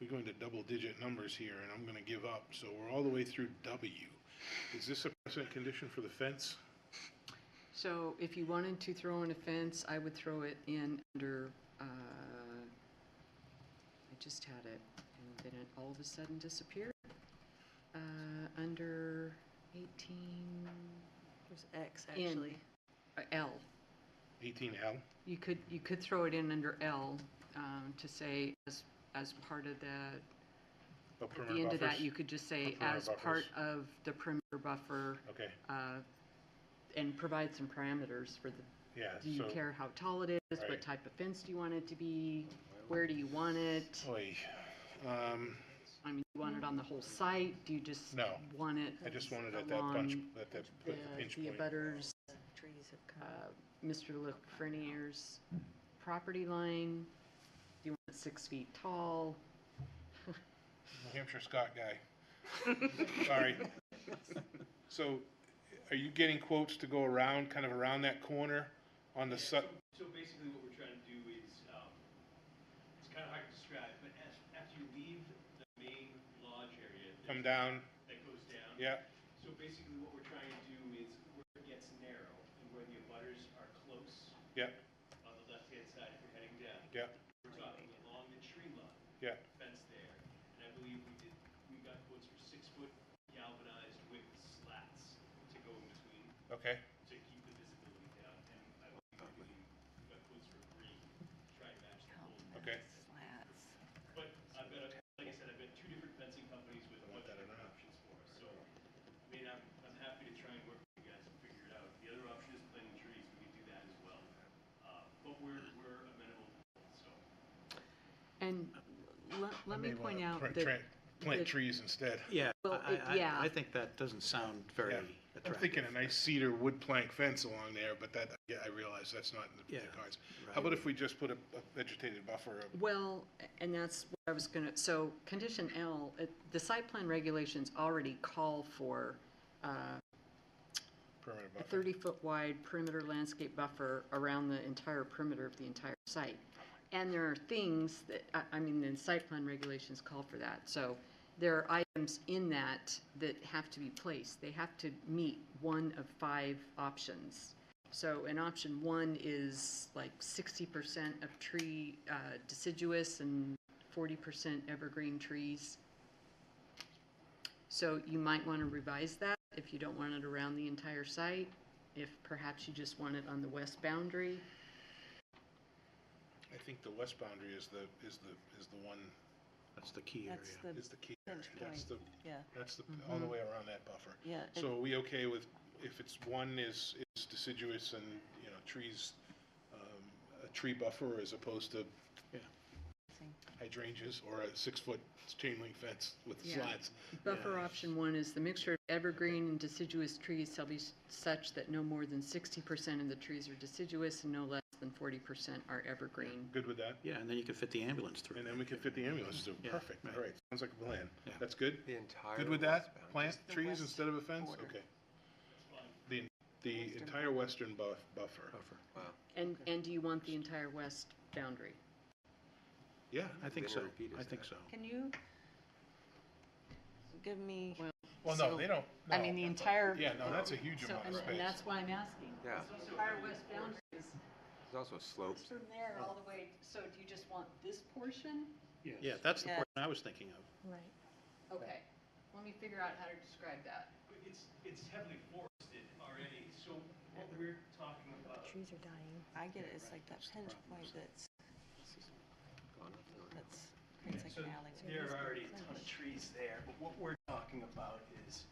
we're going to double-digit numbers here, and I'm gonna give up, so we're all the way through W. Is this a present condition for the fence? So if you wanted to throw in a fence, I would throw it in under, uh, I just had it, and then it all of a sudden disappeared. Uh, Under 18, There's X, In. actually. uh, L. Eighteen L? You could, you could throw it in under L um, to say, as, as part of the, At at the end of that, you could just say, Perimeter as part buffers. of the perimeter buffer, Okay, uh, and provide some parameters for the yeah, Do you so. care how tall it is? Right. What type of fence do you want it to be? Where do you want it? Oy, um, I mean, you want it on the whole site? Do you just No. want it? I just wanted at that punch, along at that The, pinch the point. abutters, Trees have uh, come. Mr. Lefreniere's property line? Do you want it six feet tall? New Hampshire Scott guy. Sorry. So are you getting quotes to go around, kind of around that corner on the su- So basically what we're trying to do is, um, it's kind of hard to describe, but as, after you leave the main lodge area. there's- come down? That goes down. Yeah, So basically what we're trying to do is where it gets narrow and where the abutters are close yeah, on the left-hand side if you're heading down. yeah, We're talking along the tree line, yeah. fence there. And I believe we did, we got quotes for six-foot galvanized with slats to go in between Okay, to keep the visibility down. And I believe we got quotes for green, try and match the whole okay. Slats. But I've got, a- like I said, I've got two different fencing companies with a bunch of different options for us, so, I mean, I'm, I'm happy to try and work with you guys and figure it out. The other option is planting trees, we can do that as well. Uh, But we're, we're amenable, so. And let, let me point out Plant- that, plant- Plant that- trees instead. Yeah, Well, I, it- I, yeah. I think that doesn't sound very Yeah. I'm thinking attractive. a nice cedar wood plank fence along there, but that, yeah, I realize that's not in the Yeah, cards. How right. about if we just put a a vegetated buffer, of- well, and that's what I was gonna, so condition L, it- the site plan regulations already call for, uh, permanent a buffer? 30-foot wide perimeter landscape buffer around the entire perimeter of the entire site. And there are things that, I- I mean, the site plan regulations call for that. So there are items in that that have to be placed. They have to meet one of five options. So an option one is like 60% of tree uh, deciduous and 40% evergreen trees. So you might want to revise that if you don't want it around the entire site, if perhaps you just want it on the west boundary. I think the west boundary is the, is the, is the one, That's the key area. That's the, is the key. Pinch That's the, yeah, that's the, Mm-hmm. all the way around that buffer. yeah. it- So are we okay with, if it's one is, is deciduous and, you know, trees, um, a tree buffer as opposed to hydrangeas or a six-foot chain link fence with Yeah. slats? Buffer option one is the mixture of evergreen and deciduous trees shall be s- such that no more than sixty percent of the trees are deciduous and no less than forty percent are evergreen. Good with that? Yeah, and then you could fit the ambulance through. And then we can fit the ambulance through. Yeah, Perfect, all right, sounds like a plan. Yeah. That's good? The entire. Good with that? westbound. Plant the trees west instead of a fence? border. Okay. The, the Western entire western buff, buffer. Buffer. Wow. And, and do you want the entire west boundary? Yeah, I think Then so, repeat I is think that. so. Can you give me, Well, well, no, So- they don't, I mean, the no. entire. Yeah, no, that's a huge So, amount of and, space. and that's why I'm asking. Yeah. The Entire west boundary is, There's also slopes. is from there all the way, so do you just want this portion? Yeah, that's the Yeah. part I was thinking of. Okay, let me figure out how to describe that. But it's, it's heavily forested already, so what we're talking about trees are dying. I get it, it's like that pinch point that's, that's, creates like So an alleyway. There are already a ton of trees there, but what we're talking about is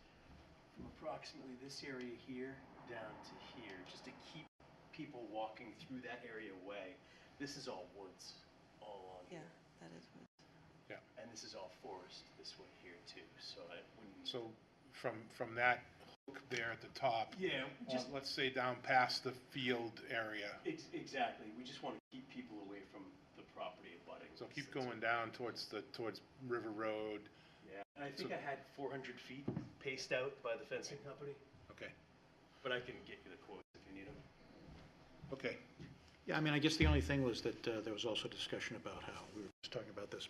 from approximately this area here down to here, just to keep people walking through that area away. This is all woods all along Yeah, here, that is what. and this is all forest this way here too, so I wouldn't. So from, from that hook there at the top, Yeah, on- just, let's say down past the field area. ex- exactly, we just want to keep people away from the property abutting. So keep That's- going down towards the, towards River Road. Yeah, and I think I had four hundred feet paced out by the fencing company, Okay, but I can get you the quotes if you need them. okay. Yeah, I mean, I guess the only thing was that uh, there was also discussion about how, we were just talking about this